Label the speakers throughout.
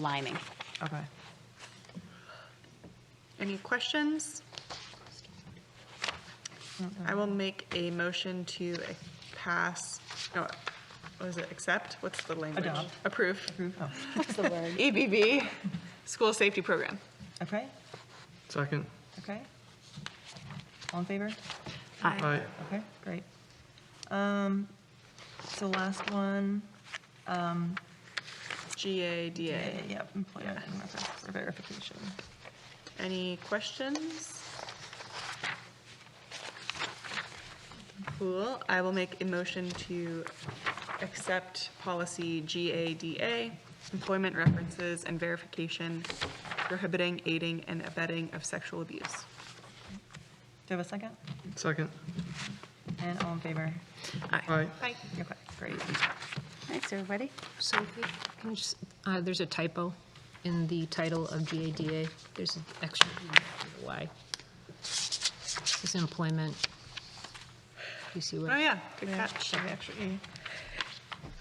Speaker 1: aligning.
Speaker 2: Okay. Any questions? I will make a motion to pass, no, what is it, accept? What's the language?
Speaker 3: Adopt.
Speaker 2: Approve.
Speaker 3: Oh,
Speaker 2: EBB, school safety program.
Speaker 3: Okay,
Speaker 4: Second.
Speaker 3: okay. All in favor?
Speaker 4: Aye.
Speaker 3: Okay, great. Um, So last one, yeah,
Speaker 2: GADA.
Speaker 3: yeah, employment and reference for verification.
Speaker 2: Any questions? Cool. I will make a motion to accept policy GADA, employment references and verification prohibiting, aiding, and abetting of sexual abuse.
Speaker 3: Do you have a second?
Speaker 4: Second.
Speaker 3: And all in favor?
Speaker 4: Aye.
Speaker 2: Bye.
Speaker 3: Okay, great.
Speaker 1: Thanks, everybody.
Speaker 5: So if you can you just, uh, there's a typo in the title of GADA. There's an extra E for the Y. This is employment. You see
Speaker 2: Oh,
Speaker 5: what?
Speaker 2: yeah, good
Speaker 3: Yeah,
Speaker 2: catch.
Speaker 3: okay, actually, E.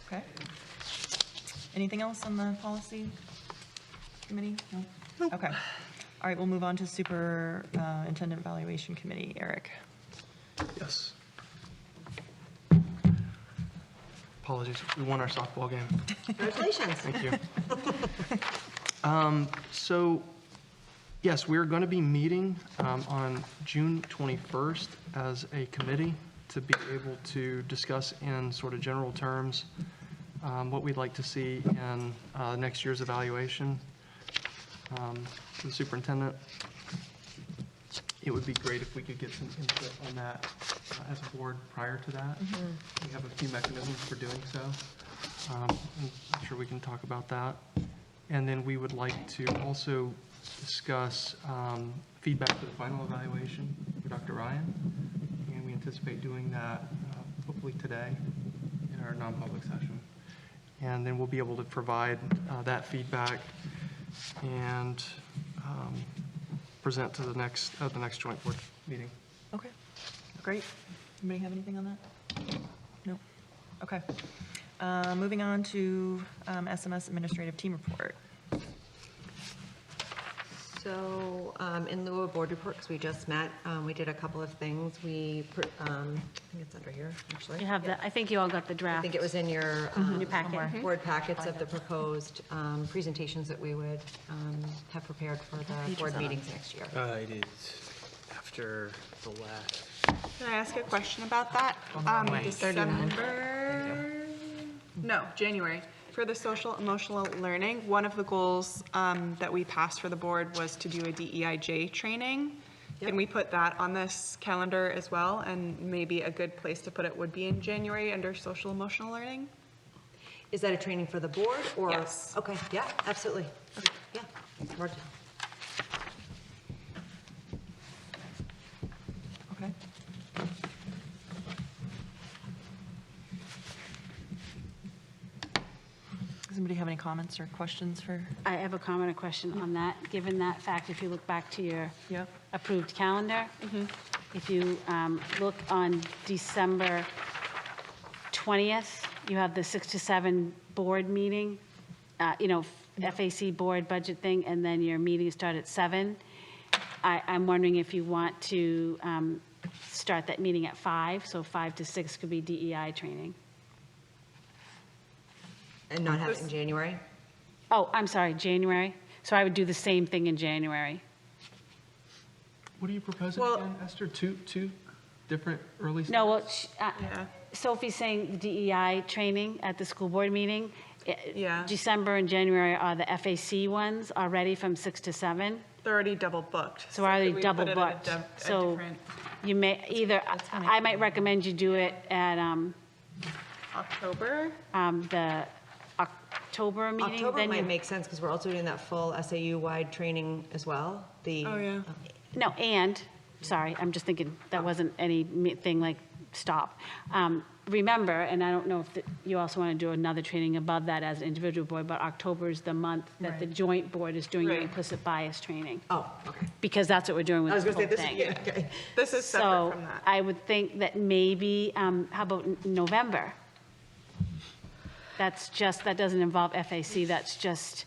Speaker 3: Okay. Anything else on the policy committee? No? Okay. All right, we'll move on to superintendent evaluation committee. Eric?
Speaker 4: Yes. Apologies, we won our softball game. Congratulations. Thank you. Um, So, yes, we're going to be meeting um, on June 21st as a committee to be able to discuss in sort of general terms um, what we'd like to see in uh, next year's evaluation um, to the superintendent it would be great if we could get some input on that uh, as a board prior to that. We have a few mechanisms for doing so. Um, I'm sure we can talk about that. And then we would like to also discuss um, feedback for the final evaluation for Dr. Ryan. And we anticipate doing that uh, hopefully today in our non-public session. And then we'll be able to provide uh, that feedback and um, present to the next, at the next joint board meeting.
Speaker 3: Okay, great. Anybody have anything on that? No? Okay. Uh, Moving on to um, SMS administrative team report.
Speaker 6: So um, in lieu of board report, because we just met, um, we did a couple of things. We, pr- um, I think it's under here, actually.
Speaker 1: You have the, I think you all got the draft.
Speaker 6: I think it was in your. um,
Speaker 1: Your packet.
Speaker 6: somewhere, Board packets of the proposed um, presentations that we would um, have prepared for the board meetings next year.
Speaker 7: Uh, it is after the last.
Speaker 2: Can I ask a question about that? Um, December, no, January. For the social emotional learning, one of the goals um, that we passed for the board was to do a DEIJ training. Can we put that on this calendar as well? And maybe a good place to put it would be in January under social emotional learning?
Speaker 6: Is that a training for the board or?
Speaker 2: Yes.
Speaker 6: Okay, yeah, absolutely. Yeah. Mark.
Speaker 3: Okay. Does anybody have any comments or questions for?
Speaker 1: I have a comment or question on that. Given that fact, if you look back to your
Speaker 3: Yeah.
Speaker 1: approved calendar, if you um, look on December 20th, you have the 6 to 7 board meeting, uh, you know, FAC board budget thing, and then your meetings start at 7. I, I'm wondering if you want to um, start that meeting at 5, so 5 to 6 could be DEI training.
Speaker 6: And not have it in January?
Speaker 1: Oh, I'm sorry, January. So I would do the same thing in January.
Speaker 4: What are you proposing
Speaker 2: Well-
Speaker 4: again, Esther? Two, two different early?
Speaker 1: No,
Speaker 4: starts?
Speaker 1: well, sh- uh, Sophie's saying DEI training at the school board meeting. I-
Speaker 2: Yeah.
Speaker 1: December and January are the FAC ones already from 6 to 7.
Speaker 2: They're already double booked.
Speaker 1: So are they
Speaker 2: could we put
Speaker 1: double
Speaker 2: it at a
Speaker 1: booked?
Speaker 2: dif- a
Speaker 1: So
Speaker 2: different
Speaker 1: you may, either, I might recommend you do it at um,
Speaker 2: October?
Speaker 1: um, the October meeting.
Speaker 6: October
Speaker 1: then you-
Speaker 6: might make sense because we're also doing that full SAU-wide training as well. The.
Speaker 2: Oh, yeah.
Speaker 1: No, and, sorry, I'm just thinking, that wasn't any me- thing like, stop. Um, Remember, and I don't know if th- you also want to do another training above that as an individual board, but October is the month that the joint board is doing your
Speaker 2: Right.
Speaker 1: implicit bias training,
Speaker 6: Oh, okay.
Speaker 1: because that's what we're doing with
Speaker 6: I was
Speaker 1: this
Speaker 6: going to
Speaker 1: whole
Speaker 6: say this. is-
Speaker 1: thing.
Speaker 6: yeah, okay.
Speaker 2: This is separate
Speaker 1: So
Speaker 2: from that.
Speaker 1: I would think that maybe, um, how about n- November? That's just, that doesn't involve FAC, that's just